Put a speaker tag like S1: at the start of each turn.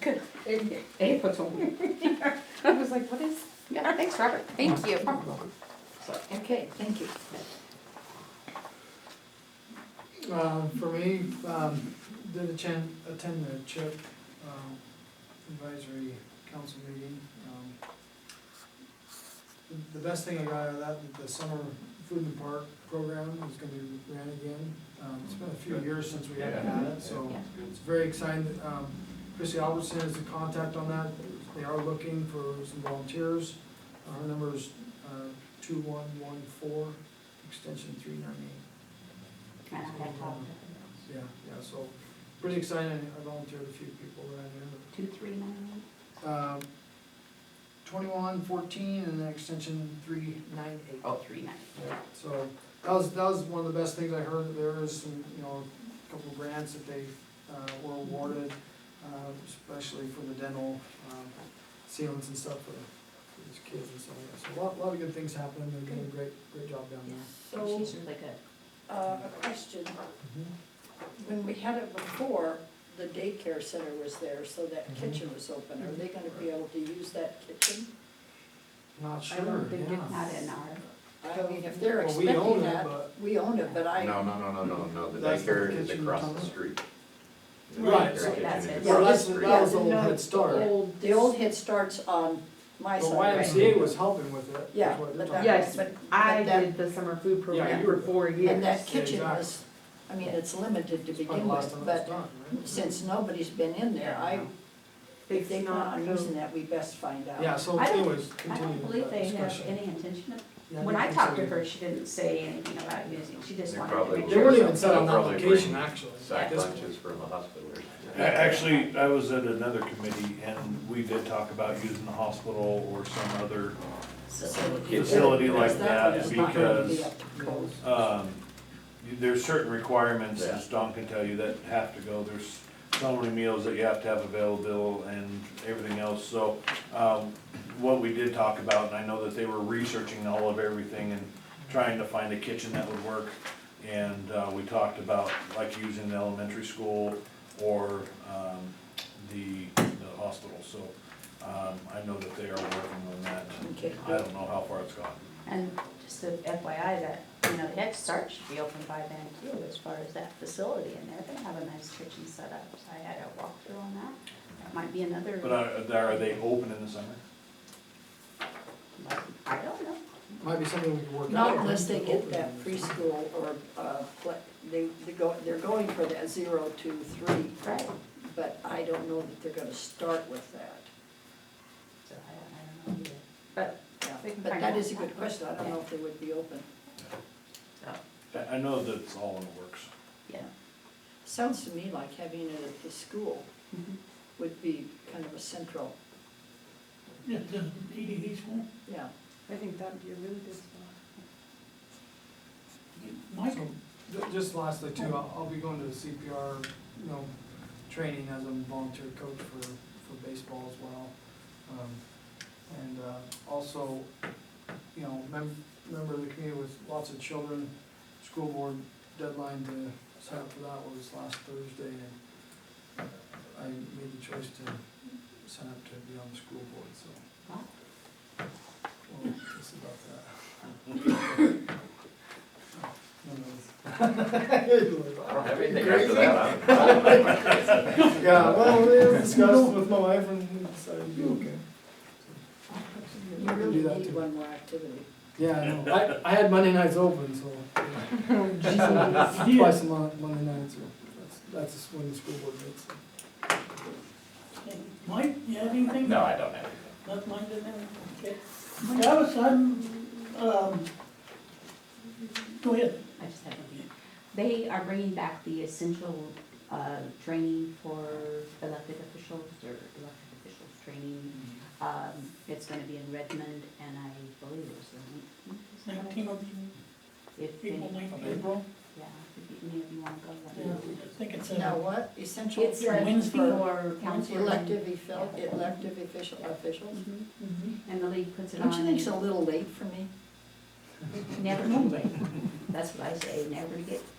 S1: did.
S2: They put some,
S1: I was like, what is?
S2: yeah, thanks, Robert.
S1: Thank you.
S2: So, Okay, thank you.
S3: Uh, for me, um, did attend, attend the CHIP, um, advisory council meeting. Um, the- The best thing I got out of that, the summer food and park program is gonna be ran again. Um, it's been a few years since we haven't had it, so it's very exciting. Um, Chrissy Albertson is the contact on that. They are looking for some volunteers. Our number is, uh, two one one four, extension three nine eight. Yeah, yeah, so pretty exciting, I volunteered a few people around here.
S2: Two, three, nine,
S3: Um, Twenty-one, fourteen, and then extension three nine eight.
S2: oh, three, nine.
S3: Yeah, So that was, that was one of the best things I heard, that there is some, you know, a couple of grants that they uh, were awarded, uh, especially for the dental um, sealants and stuff for for these kids and stuff like that. So a lot, lot of good things happening, they're doing a great, great job down there.
S1: So,
S2: She's really good.
S1: uh, a question. When we had it before, the daycare center was there, so that kitchen was open. Are they gonna be able to use that kitchen?
S3: Not
S1: I don't
S3: sure,
S1: think
S3: yeah.
S2: Not in our,
S1: I mean, if they're
S3: Well, we own
S1: expecting
S3: it,
S1: that,
S3: but-
S1: we own it, but I,
S4: No, no, no, no, no, no, the
S3: That's the
S4: daycare is
S3: kitchen
S4: across
S3: tunnel.
S4: the street. The
S3: Right,
S4: daycare
S3: so
S4: kitchen
S2: that's it.
S4: is across
S3: Well,
S4: the
S3: that's, that
S4: street.
S3: was the old
S1: Yeah, no,
S3: head start.
S1: old- the old head starts on my
S3: The
S1: side, right?
S3: YMCA was helping with it. is
S1: Yeah,
S3: what you're
S1: but
S3: talking
S1: that-
S5: Yes,
S1: but-
S5: I
S1: but that-
S5: did the summer food
S3: Yeah,
S5: program
S3: you
S5: for
S3: were-
S5: four years.
S1: And that kitchen
S3: exactly.
S1: was, I mean, it's limited to
S3: about. Probably
S1: begin
S3: last
S1: with,
S3: time it was
S1: but
S3: done, right?
S1: since nobody's been in there, I, if
S5: It's
S1: they plan
S5: not
S1: on
S5: the-
S1: using that, we best find out.
S3: Yeah, so
S2: uh, I don't-
S3: anyways,
S2: I
S3: continue
S2: don't believe
S3: that
S2: they have
S3: discussion.
S2: any intention of,
S3: Yeah,
S2: when I
S3: think
S2: talked to
S3: so.
S2: her, she didn't say anything about using, she just
S4: They
S2: wanted to
S4: probably
S2: make
S3: They
S2: sure.
S3: weren't even set on that
S4: Probably bring
S3: location, actually. at
S4: Sack
S3: this
S4: lunches from the hospital. or something.
S6: A- Actually, I was at another committee and we did talk about using the hospital or some other,
S1: Facility.
S6: Facility like
S1: Because
S6: that
S1: one's not gonna be
S6: because-
S1: up to code.
S6: um, you- there's certain requirements,
S4: Yeah.
S6: as Don can tell you, that have to go. There's so many meals that you have to have available and everything else, so, um, what we did talk about, and I know that they were researching all of everything and trying to find a kitchen that would work. And, uh, we talked about like using the elementary school or, um, the, the hospital, so, um, I know that they are working on that.
S1: Okay.
S6: I don't know how far it's gone.
S2: And just a FYI that, you know, the Head Start should be open by then too, as far as that facility in there. They have a nice kitchen set up, so I had a walkthrough on that. That might be another,
S6: But are, are they open in the summer?
S2: I don't know.
S3: Might be something we can work out.
S1: Not unless they get that preschool or, uh, what- they, they go, they're going for that zero, two, three,
S2: Right.
S1: but I don't know that they're gonna start with that.
S2: So I don't, I don't know either. But,
S1: Yeah,
S2: We can
S1: But
S2: find
S1: that
S2: out.
S1: is a good question, I don't know if they would be open.
S6: I, I know that it's all in the works.
S2: oh, yeah.
S1: Sounds to me like having it at the school would be kind of a central,
S7: The, the EDD school,
S1: yeah.
S5: I think that'd be a really good spot.
S7: Michael,
S3: Ju- Just lastly too, I'll, I'll be going to the CPR, you know, training as a volunteer coach for, for baseball as well. Um, And, uh, also, you know, mem- member of the community with lots of children, school board deadline to sign up for that was last Thursday and I made the choice to sign up to be on the school board, so.
S2: Wow.
S3: Well, it's about that.
S4: I don't have anything after that. I'm-
S3: Yeah, well, it was discussed with my wife and we decided to be okay.
S1: You
S3: can do
S1: really
S3: that
S1: need
S3: too.
S1: one more activity.
S3: Yeah, I know. I, I had Monday nights open, so. Twice a month, Monday nights, so that's, that's when the school board meets.
S7: Mike, you have anything?
S4: No, I don't have anything.
S7: Not mine, didn't have anything, okay. Travis, I'm, um, go ahead.
S2: I just have one. They are bringing back the essential uh, training for elected officials or elected officials training. Um, It's gonna be in Redmond and I believe it's the
S7: Nineteen of
S2: If any,
S7: April, ninth of
S2: yeah,
S7: April.
S2: if any of you wanna go. let me
S7: Yeah,
S2: know.
S7: I think it's
S1: Now,
S7: a,
S1: what, essential
S2: It's a
S1: training
S7: Wednesday.
S1: for
S2: for council.
S1: elective official, elective official, officials?
S2: Mhm.
S7: Mhm.
S2: And the league puts it on.
S1: Don't you think it's a little late for me?
S2: Never too late. That's what I say, never get